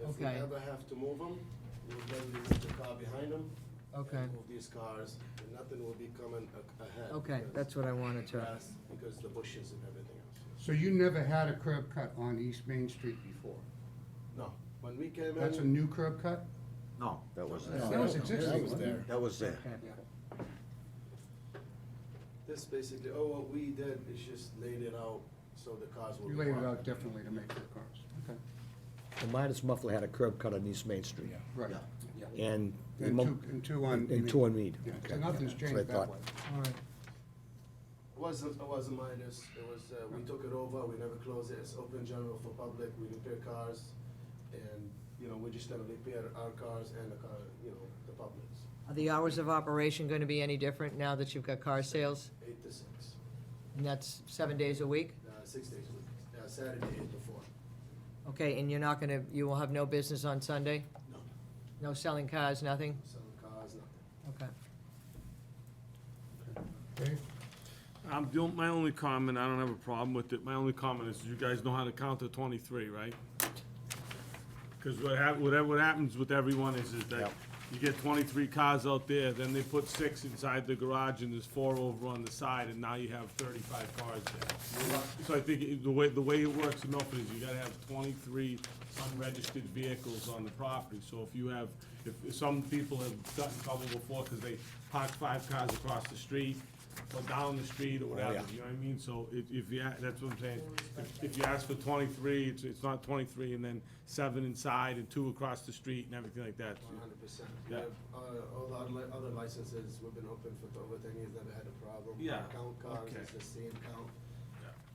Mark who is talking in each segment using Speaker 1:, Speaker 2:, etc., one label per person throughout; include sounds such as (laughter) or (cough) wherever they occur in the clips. Speaker 1: If we
Speaker 2: Okay.
Speaker 1: ever have to move them, we'll then leave the car behind them.
Speaker 2: Okay.
Speaker 1: And move these cars, and nothing will be coming a- ahead.
Speaker 2: Okay,
Speaker 1: because
Speaker 2: that's what I wanted to,
Speaker 1: grass- Because the bushes and everything else.
Speaker 3: So you never had a curb cut on East Main Street before?
Speaker 1: No, when we came in.
Speaker 3: That's a new curb cut?
Speaker 4: No, that wasn't,
Speaker 3: No. That was existing,
Speaker 1: That was
Speaker 3: wasn't it?
Speaker 1: there.
Speaker 4: that was there.
Speaker 2: okay,
Speaker 1: This basically, oh, what we did is just laid it out so the cars will.
Speaker 3: You
Speaker 1: be
Speaker 3: laid it
Speaker 1: parked.
Speaker 3: out definitely to make for cars. Okay.
Speaker 5: The Midas Muffler had a curb cut on East Main Street.
Speaker 3: Right.
Speaker 5: And. the
Speaker 3: And
Speaker 5: Mu-
Speaker 3: two, and two on.
Speaker 5: And two on Mead.
Speaker 3: Yeah, so
Speaker 5: Okay.
Speaker 3: nothing's
Speaker 5: That's what I
Speaker 3: changed that
Speaker 5: thought.
Speaker 3: way.
Speaker 2: all right.
Speaker 1: It wasn't, it wasn't minus, it was, uh, we took it over, we never closed it, it's open general for public, we repair cars. And, you know, we're just gonna repair our cars and the car, you know, the public's,
Speaker 2: Are the hours of operation gonna be any different now that you've got car sales?
Speaker 1: eight to six,
Speaker 2: And that's seven days a week?
Speaker 1: uh, six days a week, uh, Saturday eight to four.
Speaker 2: Okay, and you're not gonna, you will have no business on Sunday?
Speaker 1: No,
Speaker 2: No selling cars, nothing?
Speaker 1: selling cars, nothing.
Speaker 2: Okay.
Speaker 3: Dave?
Speaker 6: I'm doing, my only comment, I don't have a problem with it, my only comment is you guys know how to count to twenty-three, right? Cause what hap, whatever, what happens with everyone is, is that
Speaker 4: Yep.
Speaker 6: you get twenty-three cars out there, then they put six inside the garage and there's four over on the side, and now you have thirty-five cars there. So I think it- the way, the way it works in Milford is you gotta have twenty-three unregistered vehicles on the property, so if you have, if, if some people have gotten in trouble before, cause they parked five cars across the street, or down the street or whatever, you know what I mean? So if, if you, a- that's what I'm saying, If- if you ask for twenty-three, it's, it's not twenty-three, and then seven inside and two across the street and everything like that.
Speaker 1: One hundred percent. Uh,
Speaker 6: Yeah.
Speaker 1: All the other li- other licenses, we've been open for over ten years, never had a problem.
Speaker 6: Yeah,
Speaker 1: Count cars,
Speaker 6: okay.
Speaker 1: it's the same count,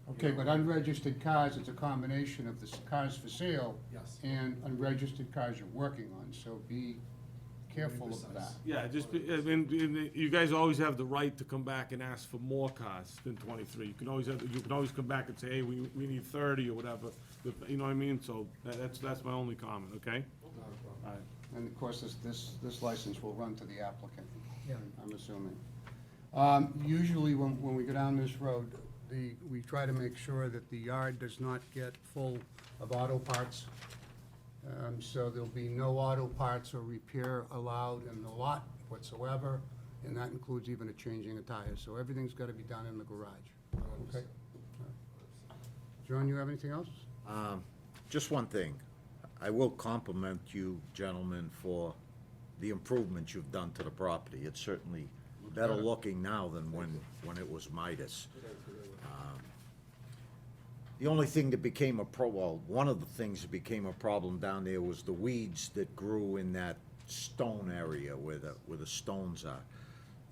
Speaker 3: Okay, but unregistered cars, it's a combination of the s- cars for sale
Speaker 1: yes.
Speaker 3: and unregistered cars you're working on, so be careful of that.
Speaker 1: Precise.
Speaker 6: Yeah, just, be- I mean, you- you guys always have the right to come back and ask for more cars than twenty-three. You can always have, you can always come back and say, hey, we, we need thirty or whatever, But, you know what I mean? So that- that's, that's my only comment, okay?
Speaker 1: Not a problem.
Speaker 6: All right.
Speaker 3: And of course, this, this, this license will run to the applicant.
Speaker 2: Yeah.
Speaker 3: I'm assuming. Um, usually when, when we go down this road, the, we try to make sure that the yard does not get full of auto parts. Um, so there'll be no auto parts or repair allowed in the lot whatsoever, and that includes even a changing of tires. So everything's gotta be done in the garage. Okay? John, you have anything else?
Speaker 4: Um, Just one thing, I will compliment you gentlemen for the improvements you've done to the property. It's certainly better looking now than when, when it was Midas. Um, The only thing that became a pro, well, one of the things that became a problem down there was the weeds that grew in that stone area where the, where the stones are.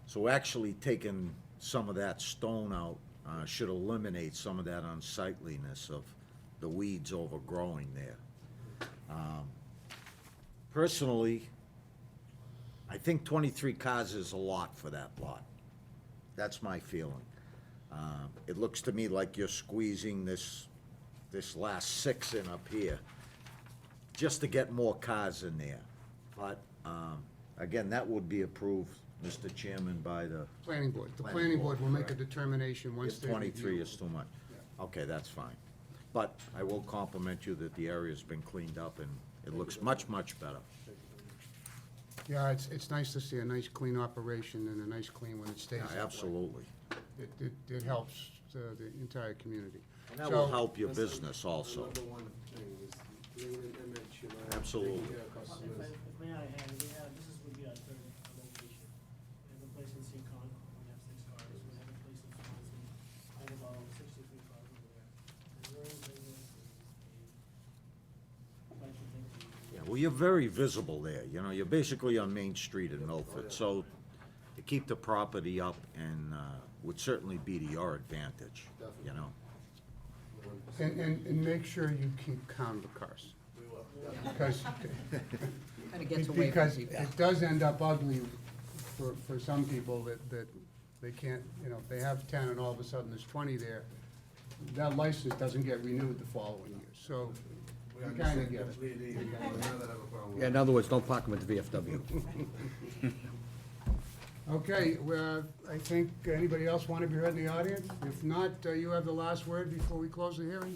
Speaker 4: So actually taking some of that stone out uh, should eliminate some of that unsightliness of the weeds overgrowing there. Um, Personally, I think twenty-three cars is a lot for that lot. That's my feeling. Um, It looks to me like you're squeezing this, this last six in up here just to get more cars in there. But, um, again, that would be approved, Mr. Chairman, by the,
Speaker 3: Planning board. The
Speaker 4: Planning
Speaker 3: planning board will make a
Speaker 4: board, correct.
Speaker 3: determination once
Speaker 4: if
Speaker 3: they
Speaker 4: twenty-three
Speaker 3: review.
Speaker 4: is too much. Okay, that's fine. But I will compliment you that the area's been cleaned up and it looks much, much better.
Speaker 3: Yeah, it's, it's nice to see a nice clean operation and a nice clean when it stays
Speaker 4: Yeah,
Speaker 3: that way.
Speaker 4: Absolutely.
Speaker 3: It, it, it helps uh, the entire community.
Speaker 4: And that will
Speaker 3: So-
Speaker 4: help your
Speaker 1: That's the-
Speaker 4: business also.
Speaker 1: The number one thing is lean and image, you know, taking
Speaker 4: Absolutely.
Speaker 1: care of
Speaker 7: If I,
Speaker 1: customers.
Speaker 7: if may I add, we have, this is, would be our third location. We have a place in Seacon, we have six cars, we have a place in Swanson, I have about sixty-three cars over there. There's very little, and I'd like to think we-
Speaker 4: Yeah, well, you're very visible there, you know, you're basically on Main Street in Milford, so to keep the property up and, uh, would certainly be to your advantage, you know?
Speaker 3: And, and, and make sure you keep count of cars,
Speaker 1: We will. (laughs)
Speaker 3: because,
Speaker 2: Kinda gets away from
Speaker 3: because
Speaker 2: people.
Speaker 3: it does end up ugly for, for some people that, that they can't, you know, if they have ten and all of a sudden there's twenty there, that license doesn't get renewed the following year, so
Speaker 1: We
Speaker 3: you kinda
Speaker 1: understand
Speaker 3: get it.
Speaker 1: completely, we never have a problem.
Speaker 5: Yeah, in other words, don't park them at the VFW.
Speaker 3: Okay, well, I think, anybody else want to be heard in the audience? If not, uh, you have the last word before we close the hearing?